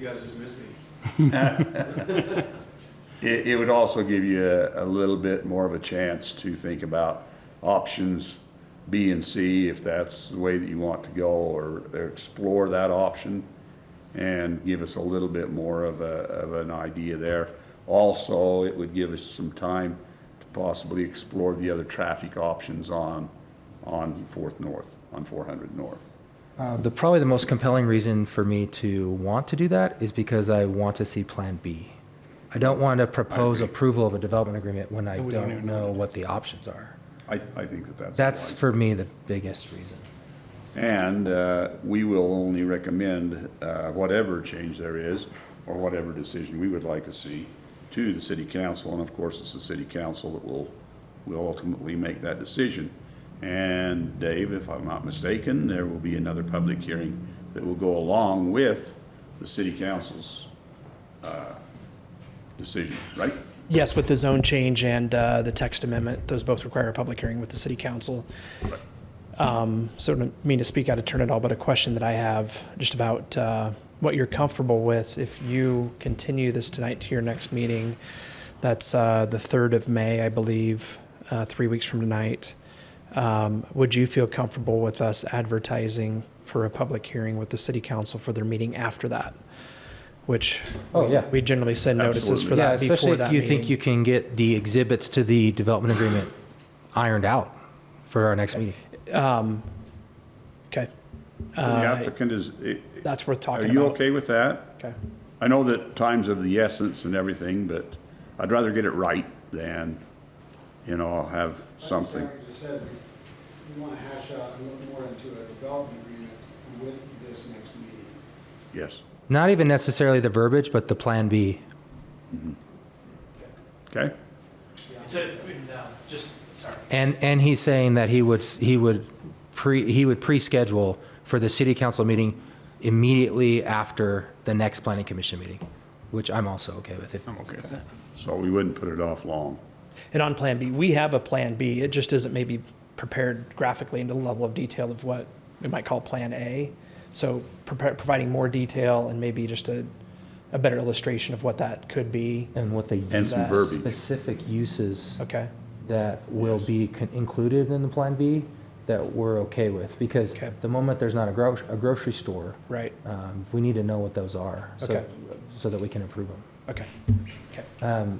You guys just missed me. It, it would also give you a, a little bit more of a chance to think about options B and C, if that's the way that you want to go, or explore that option, and give us a little bit more of a, of an idea there. Also, it would give us some time to possibly explore the other traffic options on, on Fourth North, on four hundred North. Uh, The, probably the most compelling reason for me to want to do that is because I want to see Plan B. I don't want to propose approval of a development agreement when I don't know what the options are. I, I think that that's. That's wise. for me the biggest reason. And uh, we will only recommend uh, whatever change there is, or whatever decision we would like to see, to the city council, and of course, it's the city council that will, will ultimately make that decision. And Dave, if I'm not mistaken, there will be another public hearing that will go along with the city council's uh, decision, right? Yes, with the zone change and uh, the text amendment, those both require a public hearing with the city council. Um, So I don't mean to speak out of turn at all, but a question that I have just about uh, what you're comfortable with if you continue this tonight to your next meeting. That's uh, the 3rd of May, I believe, uh, three weeks from tonight. Um, Would you feel comfortable with us advertising for a public hearing with the city council for their meeting after that? Which Oh, yeah. we generally send notices for Absolutely. Yeah, that especially before that if you think meeting. you can get the exhibits to the development agreement ironed out for our next meeting. Okay, The applicant is, i- that's worth are talking you about. okay with that? Okay. I know that time's of the essence and everything, but I'd rather get it right than, you know, have something. Like you just said, we- we want to hash out and look more into a development agreement with this next meeting. Yes. Not even necessarily the verbiage, but the Plan B. Okay? uh, just, sorry. And, and he's saying that he would, he would pre, he would pre-schedule for the city council meeting immediately after the next planning commission meeting, which I'm also okay with. If okay with that. So we wouldn't put it off long. And on Plan B, we have a Plan B. It just isn't maybe prepared graphically into the level of detail of what we might call Plan A. So prepar- providing more detail and maybe just a, a better illustration of what that could be. And what And the some That's verbiage. specific uses Okay, that will be con- included in the Plan B that we're okay with. Because Okay. the moment there's not a gro, a grocery store, right, um, we need to know what those are. so- Okay. So that we can approve them. okay, okay.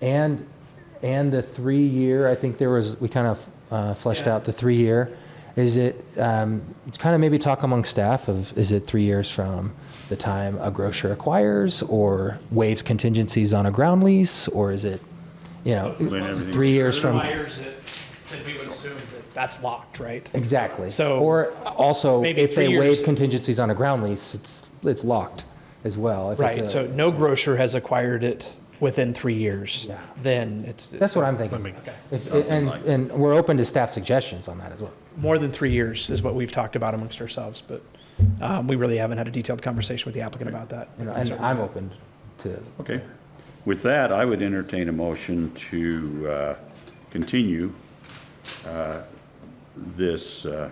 And, and the three-year, I think there was, we kind of uh, fleshed Yeah. out the three-year. Is it, um, kind of maybe talk among staff of, is it three years from the time a grocer acquires or waives contingencies on a ground lease? Or is it, you know, When everything's- three years from, that, that we would assume that that's locked, right? exactly. So- Or also, Maybe if they three waive years. contingencies on a ground lease, it's, it's locked as well. if it's a- Right, so no grocer has acquired it within three years. Yeah. Then it's. That's what I'm thinking. Okay. It's- And, like- and we're open to staff suggestions on that as well. more than three years is what we've talked about amongst ourselves, but um, we really haven't had a detailed conversation with the applicant about that. And and I'm open to Okay. With that, I would entertain a motion to uh, continue uh, this, uh,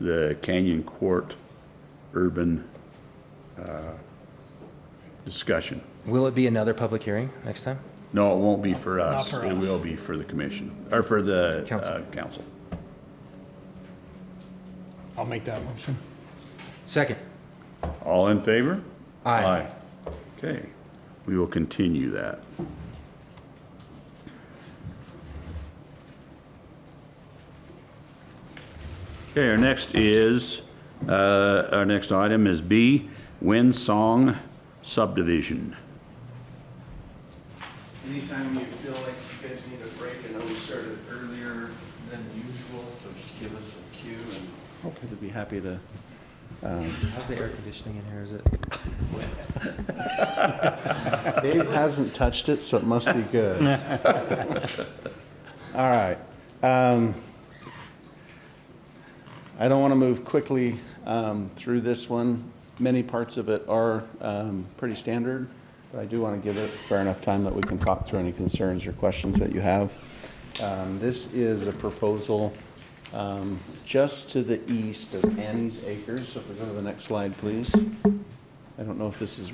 the Canyon Court urban uh, discussion. Will it be another public hearing next time? No, it won't be for us. for It us. will be for the commission, or for the Council. uh, council. I'll make that motion. Second. All in favor? Aye. Okay, we will continue that. Okay, our next is, uh, our next item is B, Winsong subdivision. Anytime you feel like you guys need a break, I know we started earlier than usual, so just give us a cue and. Hopefully they'll be happy to. How's the air conditioning in here? Is it? Dave hasn't touched it, so it must be good. All right. Um, I don't want to move quickly um, through this one. Many parts of it are um, pretty standard, but I do want to give it fair enough time that we can talk through any concerns or questions that you have. Um, This is a proposal um, just to the east of Annie's Acres. So if we go to the next slide, please. I don't know if this is